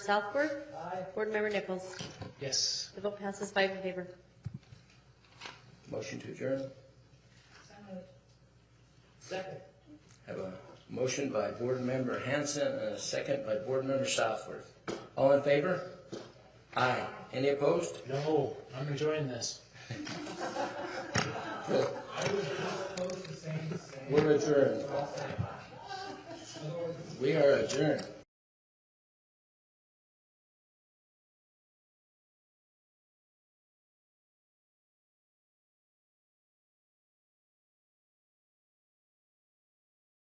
Southworth. Aye. Board Member Nichols. Yes. The vote passes five in favor. Motion to adjourn. Second. Have a motion by Board Member Hanson and a second by Board Member Southworth. All in favor? Aye. Any opposed? No, I'm enjoying this. We're adjourned. We are adjourned.